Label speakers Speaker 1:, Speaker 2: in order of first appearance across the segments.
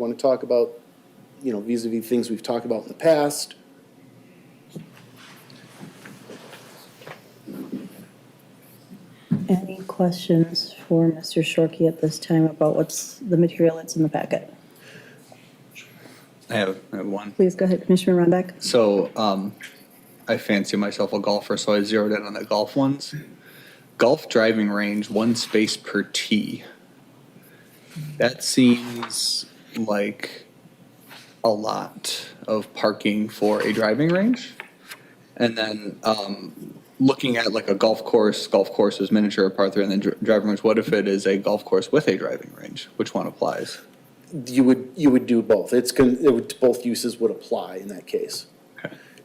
Speaker 1: Want to talk about, you know, vis-à-vis things we've talked about in the past?
Speaker 2: Any questions for Mr. Shorkey at this time about what's the material that's in the packet?
Speaker 3: I have, I have one.
Speaker 2: Please go ahead, Commissioner Rondak.
Speaker 3: So um, I fancy myself a golfer, so I zeroed in on the golf ones. Golf driving range, one space per tee. That seems like a lot of parking for a driving range. And then um, looking at like a golf course, golf course is miniature par three, and then dri- driving range. What if it is a golf course with a driving range? Which one applies?
Speaker 1: You would, you would do both. It's, con- it would, both uses would apply in that case.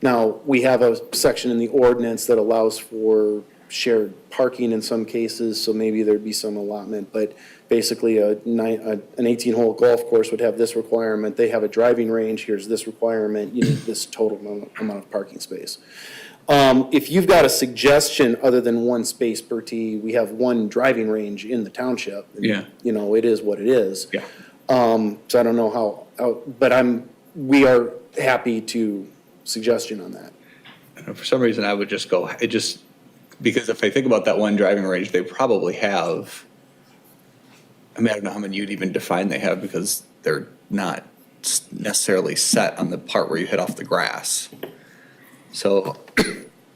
Speaker 1: Now, we have a section in the ordinance that allows for shared parking in some cases, so maybe there'd be some allotment, but basically a nine, a- an eighteen-hole golf course would have this requirement, they have a driving range, here's this requirement, you need this total amount- amount of parking space. Um, if you've got a suggestion other than one space per tee, we have one driving range in the township.
Speaker 3: Yeah.
Speaker 1: You know, it is what it is. Um, so I don't know how- how, but I'm, we are happy to suggestion on that.
Speaker 3: And For some reason, I would just go, it just, because if I think about that one driving range, they probably have, I mean, I don't know how many you'd even define they have because they're not s- necessarily set on the part where you hit off the grass. So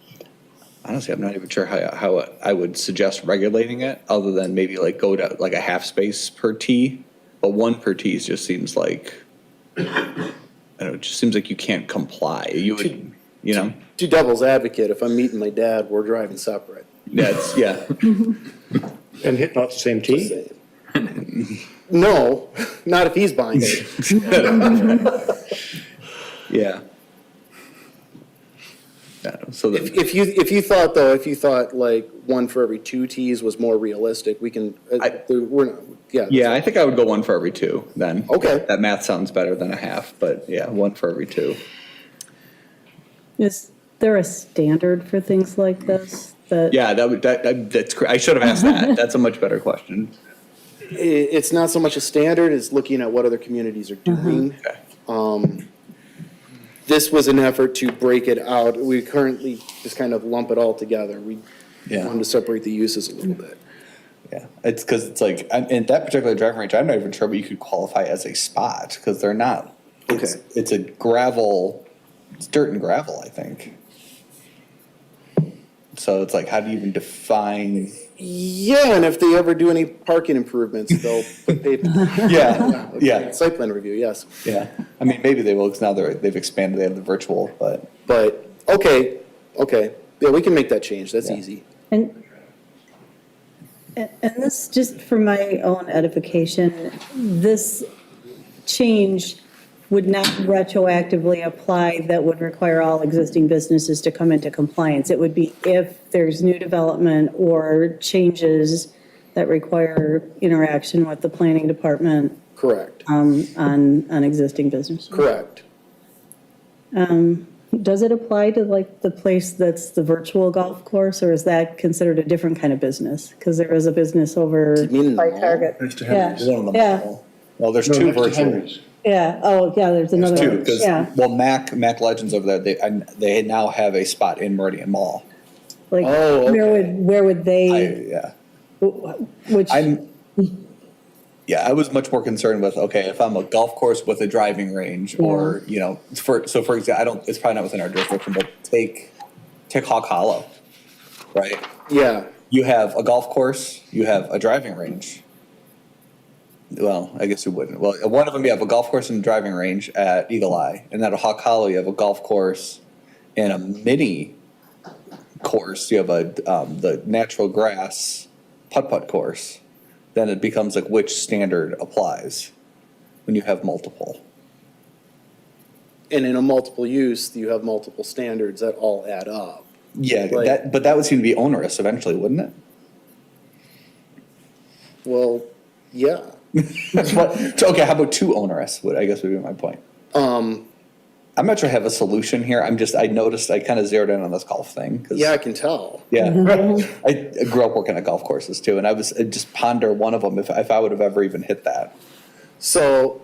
Speaker 3: honestly, I'm not even sure how, how I would suggest regulating it, other than maybe like go to like a half space per tee. But one per tee just seems like, I don't know, it just seems like you can't comply. You would, you know?
Speaker 1: To devil's advocate, if I'm meeting my dad, we're driving separate.
Speaker 3: That's, yeah.
Speaker 4: And hit not the same tee?
Speaker 1: No, not if he's buying it.
Speaker 3: Yeah. Yeah, So
Speaker 1: If,
Speaker 3: that,
Speaker 1: if you, if you thought though, if you thought like one for every two tees was more realistic, we can, uh,
Speaker 3: I-
Speaker 1: there- we're not, yeah.
Speaker 3: yeah, I think I would go one for every two then.
Speaker 1: Okay.
Speaker 3: That math sounds better than a half, but yeah, one for every two.
Speaker 2: Is there a standard for things like this that?
Speaker 3: Yeah, that would, that, that- that's, cr- I should have asked that. That's a much better question.
Speaker 1: I- it's not so much a standard, it's looking at what other communities are doing.
Speaker 3: Okay.
Speaker 1: This was an effort to break it out. We currently just kind of lump it all together. We
Speaker 3: Yeah.
Speaker 1: wanted to separate the uses a little bit.
Speaker 3: Yeah, it's because it's like, I'm- in that particular driving range, I'm not even sure what you could qualify as a spot because they're not. it's-
Speaker 1: Okay.
Speaker 3: It's a gravel, it's dirt and gravel, I think. So it's like, how do you even define?
Speaker 1: Yeah, and if they ever do any parking improvements, they'll put pavement.
Speaker 3: Yeah, yeah.
Speaker 1: Site plan review, yes.
Speaker 3: Yeah, I mean, maybe they will, because now they're, they've expanded, they have the virtual, but.
Speaker 1: But, okay, okay, yeah, we can make that change, that's
Speaker 3: Yeah.
Speaker 1: easy.
Speaker 2: And, and and this, just for my own edification, this change would not retroactively apply that would require all existing businesses to come into compliance. It would be if there's new development or changes that require interaction with the planning department
Speaker 1: Correct,
Speaker 2: um, on, on existing businesses.
Speaker 1: correct.
Speaker 2: Does it apply to like the place that's the virtual golf course, or is that considered a different kind of business? Because there is a business over
Speaker 1: mean in the
Speaker 2: by
Speaker 1: mall?
Speaker 2: Target.
Speaker 4: Mr.
Speaker 2: Yeah, yeah,
Speaker 3: Well, there's
Speaker 4: No,
Speaker 3: two
Speaker 4: next to
Speaker 3: virtual,
Speaker 4: Henry's.
Speaker 2: yeah, oh, yeah, there's another
Speaker 3: two,
Speaker 2: one,
Speaker 3: because,
Speaker 2: yeah.
Speaker 3: well, Mac, Mac Legends over there, they, and they now have a spot in Meridian Mall.
Speaker 2: Like,
Speaker 1: Oh,
Speaker 2: where would, where would
Speaker 3: I,
Speaker 2: they,
Speaker 3: yeah,
Speaker 2: which,
Speaker 3: I'm, yeah, I was much more concerned with, okay, if I'm a golf course with a driving range, or, you know, for, so for example, I don't, it's probably not within our jurisdiction, but take, take Hawk Hollow, right?
Speaker 1: Yeah,
Speaker 3: you have a golf course, you have a driving range. Well, I guess you wouldn't. Well, one of them you have a golf course and a driving range at Eagle Eye, and then at Hawk Hollow you have a golf course and a mini course. You have a um, the natural grass putt putt course. Then it becomes like which standard applies when you have multiple.
Speaker 1: and in a multiple use, you have multiple standards that all add up.
Speaker 3: Yeah,
Speaker 1: Right.
Speaker 3: that but that would seem to be onerous eventually, wouldn't it?
Speaker 1: Well, yeah,
Speaker 3: But, so, okay, how about too onerous? Would I guess would be my point.
Speaker 1: um,
Speaker 3: I'm not sure I have a solution here. I'm just I noticed I kind of zeroed in on this golf thing. 'cause-
Speaker 1: yeah, I can tell.
Speaker 3: yeah. I, I grew up working at golf courses too, and I was I just ponder one of them if if I would have ever even hit that.
Speaker 1: So